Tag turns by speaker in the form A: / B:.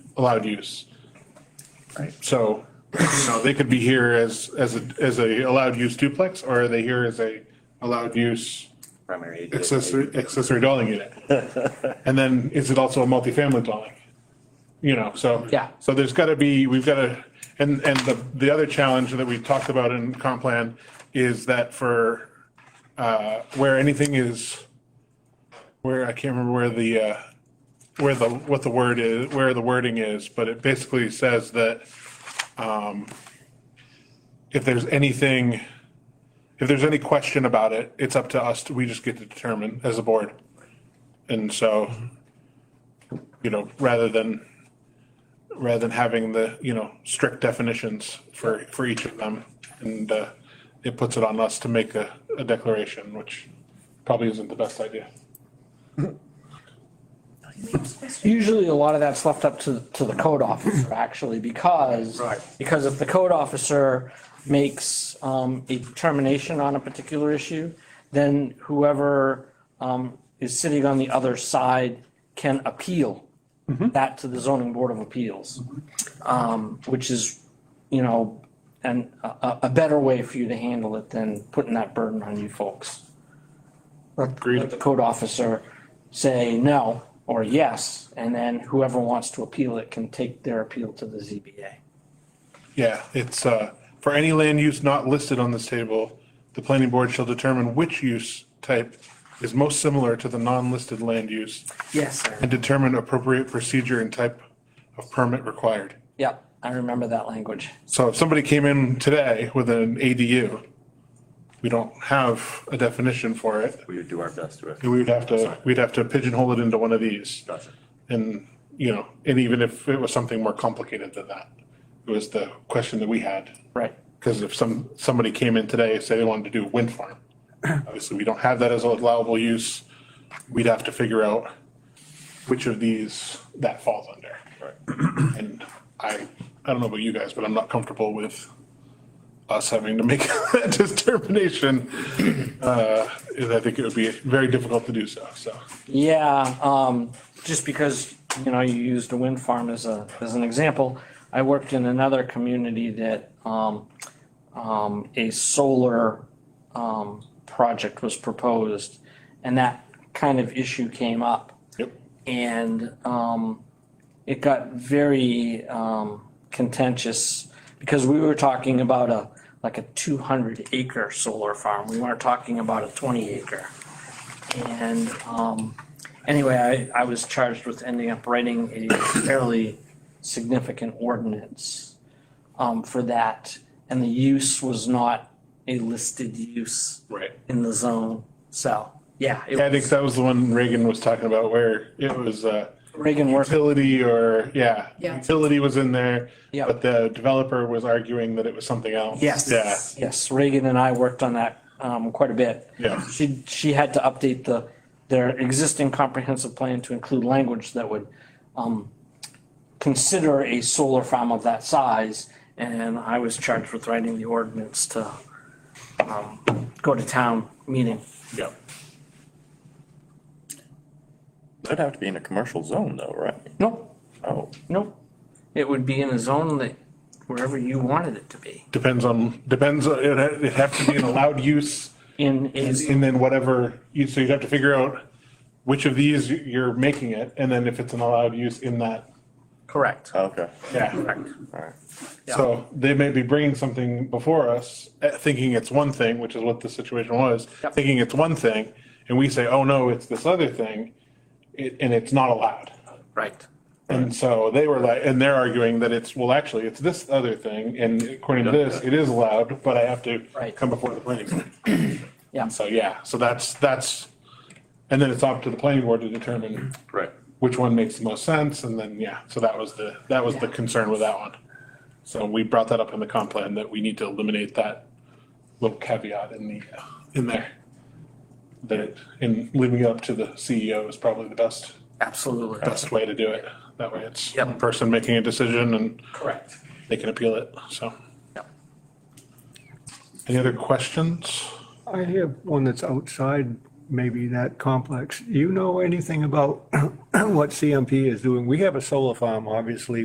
A: allowed use. Right, so, you know, they could be here as, as, a as a allowed use duplex, or are they here as a allowed use
B: primary.
A: accessory, accessory dwelling unit? And then is it also a multifamily dwelling? You know, so.
C: Yeah.
A: So there's gotta be, we've gotta, and, and the, the other challenge that we talked about in comp plan is that for, uh, where anything is, where, I can't remember where the, uh, where the, what the word is, where the wording is, but it basically says that, um, if there's anything, if there's any question about it, it's up to us, to- we just get to determine as a board. And so, you know, rather than, rather than having the, you know, strict definitions for, for each of them. And uh, it puts it on us to make a, a declaration, which probably isn't the best idea.
C: Usually a lot of that's left up to, to the code officer actually, because, because if the code officer makes, um, a determination on a particular issue, then whoever, um, is sitting on the other side can appeal that to the zoning board of appeals. Um, which is, you know, and a- a, a better way for you to handle it than putting that burden on you folks. Let let the code officer say no or yes, and then whoever wants to appeal it can take their appeal to the ZBA.
A: Yeah, it's, uh, for any land use not listed on this table, the planning board shall determine which use type is most similar to the non-listed land use
C: Yes,
A: and
C: sir.
A: determine appropriate procedure and type of permit required.
C: Yep, I remember that language.
A: So if somebody came in today with an ADU, we don't have a definition for it.
B: We would do our best to it.
A: We would have to, we'd have to pigeonhole it into one of these.
B: Gotcha.
A: And, you know, and even if it was something more complicated than that, it was the question that we had.
C: Right.
A: Because if some, somebody came in today and said they wanted to do a wind farm, obviously we don't have that as allowable use. We'd have to figure out which of these that falls under. Right. And I, I don't know about you guys, but I'm not comfortable with us having to make that determination. Uh, and I think it would be very difficult to do so, so.
C: Yeah, um, just because, you know, you used a wind farm as a, as an example. I worked in another community that, um, um, a solar, um, project was proposed. And that kind of issue came up.
A: Yep.
C: And, um, it got very, um, contentious because we were talking about a, like a two hundred acre solar farm. We weren't talking about a twenty acre. And um, anyway, I, I was charged with ending up writing a fairly significant ordinance um, for that. And the use was not a listed use
A: Right.
C: in the zone. So, yeah,
A: I
C: it
A: think
C: was,
A: that was the one Reagan was talking about where it was, uh,
C: Reagan worked,
A: utility or, yeah.
D: Yeah.
A: Utility was in there.
C: Yeah.
A: But the developer was arguing that it was something else.
C: yes.
A: Yeah,
C: Yes, Reagan and I worked on that um, quite a bit.
A: Yeah.
C: She, she had to update the, their existing comprehensive plan to include language that would um, consider a solar farm of that size, and I was charged with writing the ordinance to um, go to town meeting.
A: yeah.
B: That'd have to be in a commercial zone though, right?
C: Nope,
B: Oh,
C: nope. It would be in a zone that, wherever you wanted it to be,
A: Depends on, depends, on- it'd ha- it'd have to be an allowed use
C: in, in,
A: and then whatever, you- so you'd have to figure out which of these you're making it and then if it's an allowed use in that.
C: correct.
B: okay,
A: Yeah.
B: alright.
A: So they may be bringing something before us, eh, thinking it's one thing, which is what the situation was,
C: Yep.
A: thinking it's one thing. And we say, oh no, it's this other thing, it- and it's not allowed.
C: Right.
A: And so they were like, and they're arguing that it's, well, actually, it's this other thing, and according to this, it is allowed, but I have to
C: Right.
A: come before the planning board.
C: Yeah.
A: So, yeah, so that's, that's, and then it's up to the planning board to determine
B: Right.
A: which one makes the most sense, and then, yeah, so that was the, that was the
C: Yeah.
A: concern with that one. So we brought that up in the comp plan, that we need to eliminate that little caveat in the, uh, in there. That, it- and leaving it up to the CEO is probably the best
C: Absolutely.
A: best way to do it. That way it's
C: Yep.
A: one person making a decision and
C: Correct.
A: they can appeal it, so.
C: Yep.
A: Any other questions?
E: I have one that's outside maybe that complex. Do you know anything about what CMP is doing? We have a solar farm, obviously,